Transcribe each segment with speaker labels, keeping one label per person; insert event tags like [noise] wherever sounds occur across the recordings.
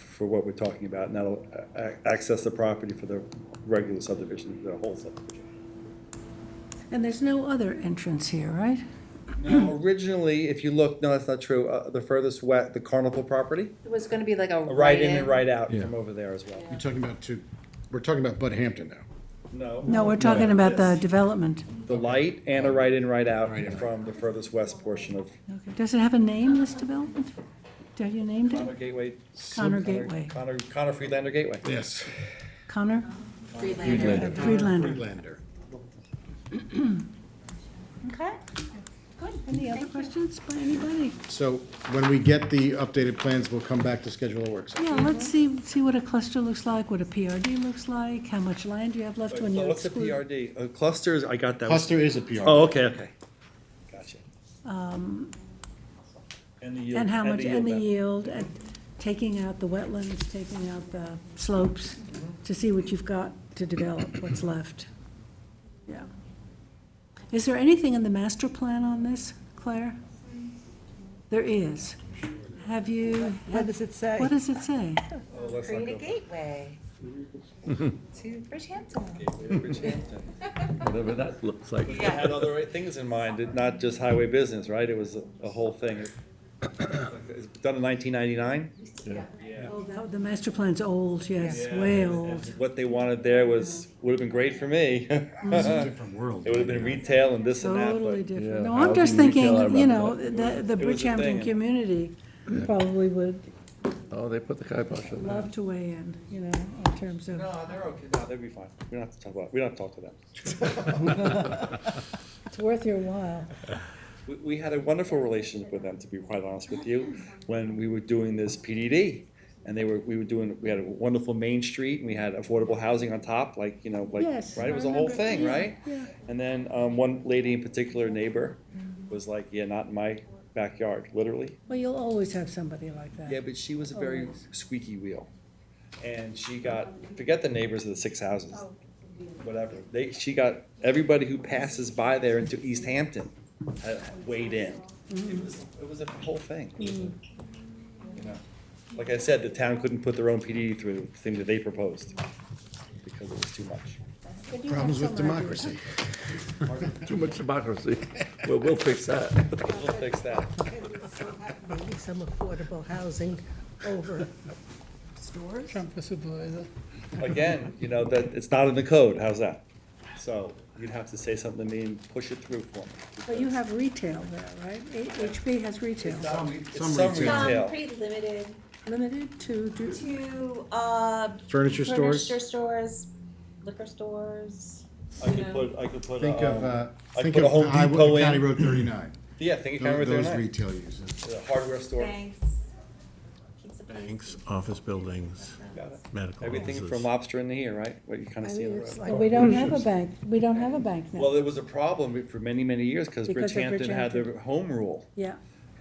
Speaker 1: for what we're talking about, not a- a- access the property for the regular subdivision, the whole subdivision.
Speaker 2: And there's no other entrance here, right?
Speaker 1: Now, Originally, if you look, no, that's not true, uh, the furthest west, the Carnival property,
Speaker 3: It was gonna be like a.
Speaker 1: right in and right out
Speaker 4: Yeah.
Speaker 1: from over there as well.
Speaker 4: You're talking about two, we're talking about Bud Hampton now.
Speaker 1: No.
Speaker 2: No, we're talking about the development.
Speaker 1: The light and a right in, right out
Speaker 4: Right in, right
Speaker 1: from the furthest west portion of
Speaker 2: Okay. Does it have a name, this development? Have you named
Speaker 1: Connor
Speaker 2: it?
Speaker 1: Gateway.
Speaker 2: Connor Gateway.
Speaker 1: Connor, Connor Friedlander Gateway.
Speaker 4: Yes.
Speaker 2: Connor?
Speaker 3: Freelander.
Speaker 2: Friedlander.
Speaker 4: Freelander.
Speaker 3: Okay.
Speaker 2: Any other questions by anybody?
Speaker 4: So when we get the updated plans, we'll come back to schedule a work session.
Speaker 2: Yeah, let's see, see what a cluster looks like, what a PRD looks like, how much land you have left when you
Speaker 1: What's a
Speaker 2: exclude.
Speaker 1: PRD? Uh, Clusters, I got that.
Speaker 4: Cluster is a PR.
Speaker 1: Oh, okay, okay. Gotcha. And the yield.
Speaker 2: And how much, and the
Speaker 1: benefit.
Speaker 2: yield, and taking out the wetlands, taking out the slopes, to see what you've got to develop, what's left. Yeah. Is there anything in the master plan on this, Claire? There is. Have you?
Speaker 5: What does it say?
Speaker 2: What does it say?
Speaker 1: Oh, let's not
Speaker 3: Create a
Speaker 1: go-
Speaker 3: [laughs] gateway to Bridgehampton.
Speaker 6: whatever that looks like.
Speaker 1: I had other things in mind, it- not just highway business, right? It was a- a whole thing. It's Done in nineteen ninety-nine.
Speaker 2: Oh, that- The master plan's old, yes, way old.
Speaker 1: What they wanted there was, would have been great for me. [laughs] It
Speaker 4: Different world.
Speaker 1: would have been retail and this and that,
Speaker 2: Totally
Speaker 1: but
Speaker 2: different.
Speaker 6: Yeah,
Speaker 2: No, I'm just
Speaker 6: housing retail, I
Speaker 2: thinking, you know, the,
Speaker 6: remember
Speaker 2: the
Speaker 1: It was a
Speaker 2: Bridgehampton
Speaker 1: thing.
Speaker 2: community probably would
Speaker 6: Oh, they put the kibosh on that.
Speaker 2: love to weigh in, you know, in terms of.
Speaker 1: no, they're okay, no, they'd be fine. We don't have to talk about, we don't have to talk to them. [laughs]
Speaker 2: It's worth your while.
Speaker 1: We, we had a wonderful relationship with them, to be quite honest with you, when we were doing this PDD. And they were, we were doing, we had a wonderful Main Street, and we had affordable housing on top, like, you know, like,
Speaker 2: Yes,
Speaker 1: right,
Speaker 2: I
Speaker 1: it was a whole
Speaker 2: remember.
Speaker 1: thing,
Speaker 2: Yeah,
Speaker 1: right?
Speaker 2: yeah.
Speaker 1: And then, um, one lady in particular, neighbor, was like, yeah, not in my backyard, literally.
Speaker 2: Well, you'll always have somebody like that.
Speaker 1: Yeah, but she was a very
Speaker 2: Always.
Speaker 1: squeaky wheel. And she got, forget the neighbors of the six houses, whatever. They, she got everybody who passes by there into East Hampton uh, weighed in. It was, it was a whole thing. It was a- you know. Like I said, the town couldn't put their own PD through the thing that they proposed because it was too much.
Speaker 4: Problems with democracy.
Speaker 6: Too much democracy. Well, we'll fix that.
Speaker 1: We'll fix that.
Speaker 5: Maybe some affordable housing over stores? Trump the supervisor.
Speaker 1: Again, you know, that, it's not in the code, how's that? So you'd have to say something to me and push it through for me.
Speaker 2: But you have retail there, right? A- HB has retail,
Speaker 1: It's some
Speaker 3: Um,
Speaker 1: retail.
Speaker 3: pretty limited
Speaker 2: limited to, do-
Speaker 3: to, uh.
Speaker 4: Furniture stores?
Speaker 3: Furniture stores, liquor stores.
Speaker 1: I could put, I could put.
Speaker 4: Think of,
Speaker 1: um,
Speaker 4: uh,
Speaker 1: I'd
Speaker 4: think
Speaker 1: put a
Speaker 4: of
Speaker 1: Home
Speaker 4: the highway-
Speaker 1: Depot in.
Speaker 4: County Road thirty-nine.
Speaker 1: Yeah, think it kind
Speaker 4: Tho-
Speaker 1: of right
Speaker 4: Those
Speaker 1: there.
Speaker 4: retail uses.
Speaker 1: The hardware store.
Speaker 3: Banks. Pizza places.
Speaker 7: Banks, office buildings,
Speaker 1: Got it.
Speaker 7: medical
Speaker 1: Everything from
Speaker 7: offices.
Speaker 1: lobster in the here, right? What you kind of see in the
Speaker 5: it's
Speaker 1: road. Oh,
Speaker 5: like-
Speaker 2: but we don't have a bank, we don't have a bank
Speaker 1: Well,
Speaker 2: now.
Speaker 1: there was a problem for many, many years because
Speaker 2: Because of
Speaker 1: Bridgehampton had
Speaker 2: Bridgehampton.
Speaker 1: their home rule.
Speaker 2: Yeah,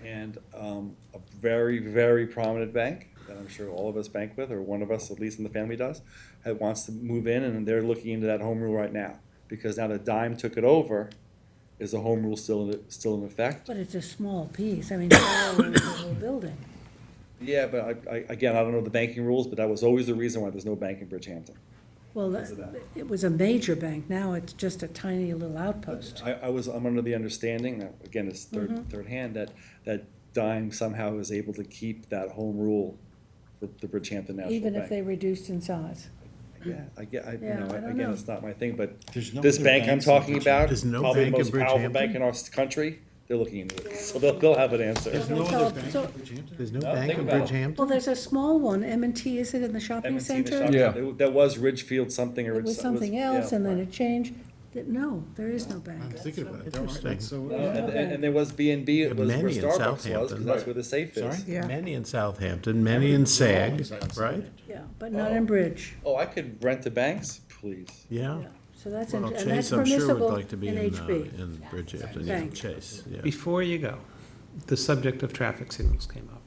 Speaker 1: And um, a very, very prominent bank that I'm sure all of us bank with, or one of us, at least in the family does, had wants to move in and they're looking into that home rule right now. Because now that Dime took it over, is the home rule still, in still in effect?
Speaker 2: but it's a small piece, I mean, it's all over the whole building.
Speaker 1: Yeah, but I, I, again, I don't know the banking rules, but that was always the reason why there's no bank in Bridgehampton.
Speaker 2: Well,
Speaker 1: of that.
Speaker 2: it was a major bank, now it's just a tiny little outpost.
Speaker 1: I, I was, I'm under the understanding that, again, it's third,
Speaker 2: Mm-hmm.
Speaker 1: third hand, that, that Dime somehow is able to keep that home rule for the Bridgehampton National
Speaker 2: Even if they
Speaker 1: Bank.
Speaker 2: reduced in size.
Speaker 1: Yeah, I get, I, you
Speaker 2: Yeah,
Speaker 1: know,
Speaker 2: I don't
Speaker 1: again,
Speaker 2: know.
Speaker 1: it's not my thing, but
Speaker 4: There's no
Speaker 1: this
Speaker 4: other
Speaker 1: bank I'm
Speaker 4: banks in
Speaker 1: talking about,
Speaker 7: There's no
Speaker 1: probably the
Speaker 7: bank in
Speaker 1: most powerful
Speaker 7: Bridgehampton?
Speaker 1: bank in our s- country, they're looking into it, so they'll, they'll have an answer.
Speaker 4: No
Speaker 2: So-
Speaker 4: other bank
Speaker 2: so-
Speaker 4: in Bridgehampton?
Speaker 7: There's no
Speaker 1: No,
Speaker 7: bank
Speaker 1: think
Speaker 7: in
Speaker 1: about it.
Speaker 2: Well,
Speaker 7: Bridgehampton?
Speaker 2: there's a small one, m and T, is it in the shopping
Speaker 1: Haven't seen the
Speaker 2: center?
Speaker 1: shop
Speaker 6: Yeah.
Speaker 1: yet. There- There was Ridgefield something or.
Speaker 2: It was
Speaker 1: so-
Speaker 2: something
Speaker 1: yeah.
Speaker 2: else, and then it changed, that, no, there is no
Speaker 4: I'm
Speaker 2: bank.
Speaker 4: thinking about it. There aren't,
Speaker 7: Interesting.
Speaker 4: that's so-
Speaker 1: Uh, And, and and there was B and B, it was where
Speaker 7: Many in
Speaker 1: Starbucks was, because
Speaker 7: Southampton.
Speaker 1: that's where the safe
Speaker 4: Sorry?
Speaker 1: is.
Speaker 5: Yeah.
Speaker 7: Many in Southampton, many in SAG, right?
Speaker 2: Yeah, but not in Bridge.
Speaker 1: Oh, I could rent to banks, please.
Speaker 7: Yeah.
Speaker 2: So that's, in-
Speaker 7: Oh. Well,
Speaker 2: and that's
Speaker 7: Chase, I'm sure would
Speaker 2: permissible in
Speaker 7: like to be in, uh,
Speaker 2: HB.
Speaker 7: in Bridgehampton, yeah,
Speaker 2: Bank.
Speaker 7: Chase, yeah.
Speaker 8: Before you go, the subject of traffic signals came up,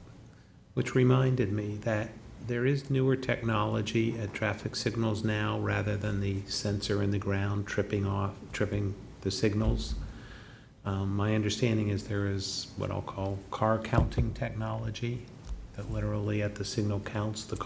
Speaker 8: which reminded me that there is newer technology at traffic signals now rather than the sensor in the ground tripping off, tripping the signals. Um, my understanding is there is what I'll call car counting technology that literally at the signal counts the